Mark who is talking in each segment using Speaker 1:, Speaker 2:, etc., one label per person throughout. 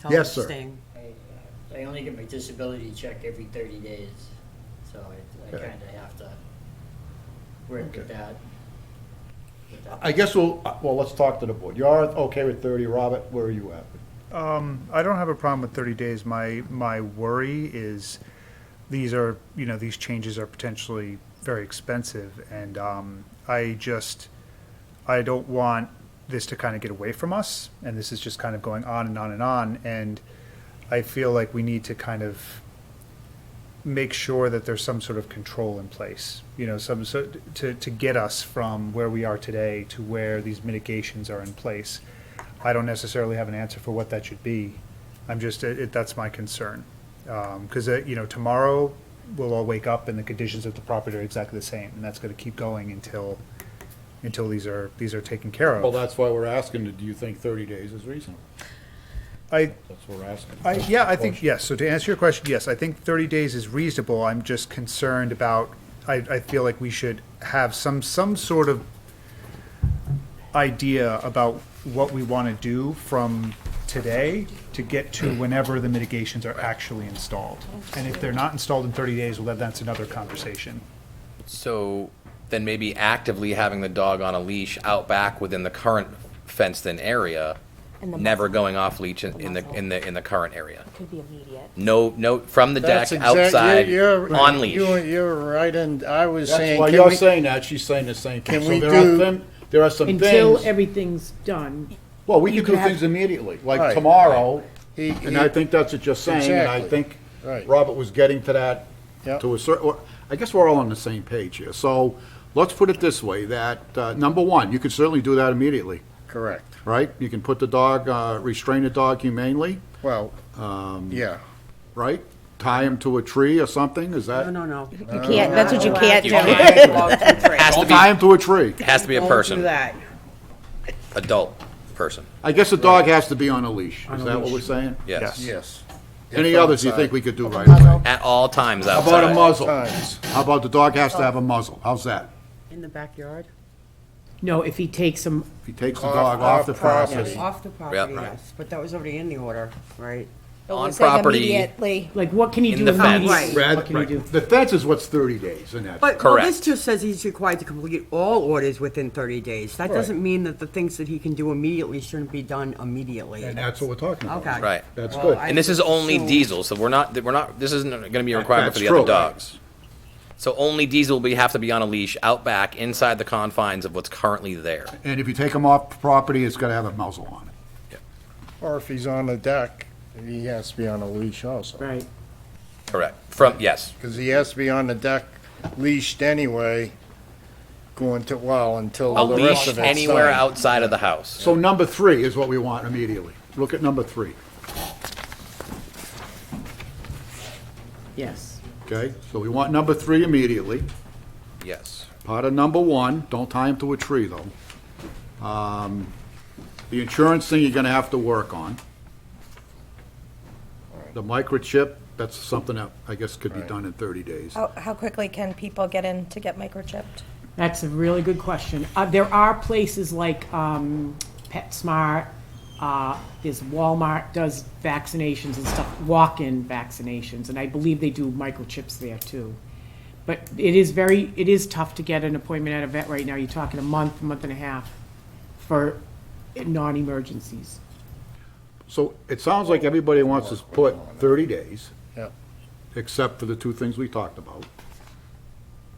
Speaker 1: tell them
Speaker 2: Yes,
Speaker 1: to
Speaker 2: sir.
Speaker 1: stay.
Speaker 3: I, I only get my disability check every thirty days, so I, I
Speaker 2: Okay.
Speaker 3: kinda have to work
Speaker 2: Okay.
Speaker 3: with that. with that.
Speaker 2: I guess we'll, well, let's talk to the board. You're okay with 30, Robert, where are you at?
Speaker 4: Um, I don't have a problem with 30 days. My, my worry is these are, you know, these changes are potentially very expensive. And um, I just, I don't want this to kind of get away from us. And this is just kind of going on and on and on. And I feel like we need to kind of make sure that there's some sort of control in place, you know, some so to, to get us from where we are today to where these mitigations are in place. I don't necessarily have an answer for what that should be. I'm just, it, it- that's my concern. Because, you know, tomorrow we'll all wake up and the conditions of the property are exactly the same. And that's going to keep going until, until these are, these are taken care
Speaker 5: Well,
Speaker 4: of.
Speaker 5: that's why we're asking, do you think 30 days is reasonable?
Speaker 4: I,
Speaker 5: That's what we're asking.
Speaker 4: I, yeah, I think, yes, so to answer your question, yes, I think thirty days is reasonable, I'm just concerned about, I, I feel like we should have some, some sort of idea about what we wanna do from today to get to whenever the mitigations are actually installed. And if they're not installed in thirty days, well, then that's another conversation.
Speaker 6: So then maybe actively having the dog on a leash out back within the current fenced-in area,
Speaker 7: And the
Speaker 6: never
Speaker 7: muzzle.
Speaker 6: going off leash in in the,
Speaker 7: muzzle.
Speaker 6: in the, in the current area.
Speaker 7: Could be immediate.
Speaker 6: No, no, from the deck,
Speaker 8: That's exact-
Speaker 6: outside,
Speaker 8: you're- you're-
Speaker 6: on leash.
Speaker 8: You're, you're right, and I was
Speaker 5: That's
Speaker 8: saying,
Speaker 5: why
Speaker 8: can
Speaker 5: you're
Speaker 8: we-
Speaker 5: saying that, she's saying the same thing.
Speaker 8: Can
Speaker 5: So
Speaker 8: we
Speaker 5: there are
Speaker 8: do-
Speaker 5: thin- There are some
Speaker 9: Until
Speaker 5: things,
Speaker 9: everything's done.
Speaker 5: well, we
Speaker 9: you
Speaker 5: can do
Speaker 9: can have-
Speaker 5: things immediately, like
Speaker 8: Right.
Speaker 5: tomorrow,
Speaker 8: He-
Speaker 5: and
Speaker 8: he-
Speaker 5: I think that's what you're saying, and I
Speaker 8: Exactly.
Speaker 5: think
Speaker 8: Right.
Speaker 5: Robert was getting to that,
Speaker 8: Yep.
Speaker 5: to a certain, I guess we're all on the same page here. So let's put it this way, that, uh, number one, you could certainly do that immediately,
Speaker 8: correct,
Speaker 5: right? You can put the dog, uh, restrain the dog humanely,
Speaker 8: well, Um,
Speaker 5: um,
Speaker 8: yeah,
Speaker 5: right? Tie him to a tree or something, is
Speaker 1: No,
Speaker 5: that?
Speaker 1: no, no.
Speaker 7: You
Speaker 2: Uh,
Speaker 9: Oh.
Speaker 7: can't, that's what you can't
Speaker 6: You
Speaker 7: do.
Speaker 6: can't- Has to
Speaker 5: Don't tie
Speaker 6: be,
Speaker 5: him to a tree.
Speaker 6: has to be a
Speaker 9: Do
Speaker 6: person,
Speaker 9: that.
Speaker 6: adult person,
Speaker 5: I guess the dog has to be on a leash.
Speaker 1: On
Speaker 5: Is
Speaker 1: a
Speaker 5: that what
Speaker 1: leash.
Speaker 5: we're saying?
Speaker 6: yes.
Speaker 8: yes.
Speaker 5: Any others you think we could do right
Speaker 7: Muzzle.
Speaker 5: away?
Speaker 6: At all times
Speaker 5: How
Speaker 6: outside.
Speaker 5: about a muzzle?
Speaker 8: Times.
Speaker 5: How about the dog has to have a muzzle? How's that?
Speaker 1: In the backyard?
Speaker 9: No, if he takes them
Speaker 5: If he takes the
Speaker 8: Off-
Speaker 5: dog off
Speaker 8: off
Speaker 5: the
Speaker 8: property.
Speaker 5: premises.
Speaker 1: Off the property,
Speaker 6: right.
Speaker 1: yes, but that was already in the order, right?
Speaker 7: But
Speaker 6: On
Speaker 7: we're saying
Speaker 6: property.
Speaker 7: Immediately.
Speaker 9: Like, what can you
Speaker 6: In
Speaker 9: do
Speaker 6: the fence.
Speaker 9: immediately?
Speaker 5: Rather-
Speaker 9: What can you do?
Speaker 5: The fence is what's 30 days, isn't it?
Speaker 1: But, well, this
Speaker 6: Correct.
Speaker 1: just says he's required to complete all orders within 30 days. That doesn't mean that the things that he can do immediately shouldn't be done immediately.
Speaker 5: And that's what we're talking about.
Speaker 1: Okay.
Speaker 6: Right.
Speaker 5: That's
Speaker 1: Well,
Speaker 5: good.
Speaker 1: I-
Speaker 6: And this is only
Speaker 1: So-
Speaker 6: diesel, so we're not, we're not, this isn't gonna be a requirement for
Speaker 5: That's
Speaker 6: the other
Speaker 5: true.
Speaker 6: dogs. So only diesel will be, have to be on a leash out back, inside the confines of what's currently there.
Speaker 5: And if you take him off property, it's got to have a muzzle on it.
Speaker 8: Or if he's on the deck, he has to be on a leash also.
Speaker 9: Right.
Speaker 6: Correct. From, yes,
Speaker 8: Because he has to be on the deck leashed anyway, going to, well, until
Speaker 6: a
Speaker 8: the rest
Speaker 6: leash
Speaker 8: of it's done.
Speaker 6: anywhere outside of the house.
Speaker 5: So number three is what we want immediately. Look at number three,
Speaker 9: Yes.
Speaker 5: okay? So we want number three immediately.
Speaker 6: Yes.
Speaker 5: Part of number one, don't tie him to a tree, though. Um, The insurance thing you're gonna have to work on. The microchip, that's something that I guess could be done in 30 days.
Speaker 7: How, how quickly can people get in to get microchipped?
Speaker 9: That's a really good question. Uh, there are places like, um, PetSmart, uh, there's Walmart does vaccinations and stuff, walk-in vaccinations, and I believe they do microchips there too. But it is very, it is tough to get an appointment at a vet right now. You're talking a month, month and a half for non-emergencies.
Speaker 5: So it sounds like everybody wants to put 30 days,
Speaker 8: Yeah.
Speaker 5: except for the two things we talked about.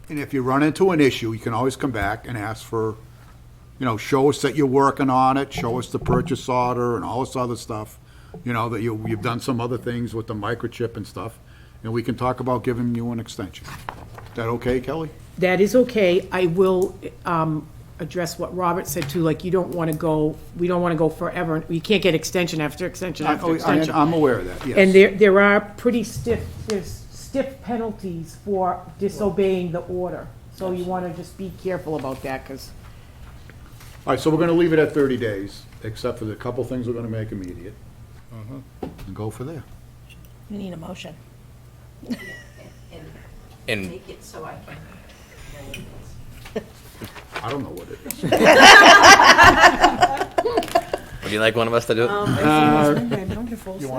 Speaker 5: And if you run into an issue, you can always come back and ask for, you know, show us that you're working on it, show us the purchase order and all this other stuff. You know, that you, you've done some other things with the microchip and stuff, and we can talk about giving you an extension. Is that okay, Kelly?
Speaker 9: That is okay. I will um, address what Robert said too, like, you don't want to go, we don't want to go forever. You can't get extension after extension
Speaker 5: I-
Speaker 9: after extension.
Speaker 5: I- Oh, I'm aware of that, yes.
Speaker 9: And there, there are pretty stiff, there's stiff penalties for disobeying the order. So you want to just be careful about that, because
Speaker 5: All right, so we're gonna leave it at thirty days, except for the couple things we're gonna make immediate. And go for there.
Speaker 7: You need a motion.
Speaker 6: And
Speaker 5: I don't know what it is.
Speaker 6: would you like one of us to do it?
Speaker 1: Wonderful.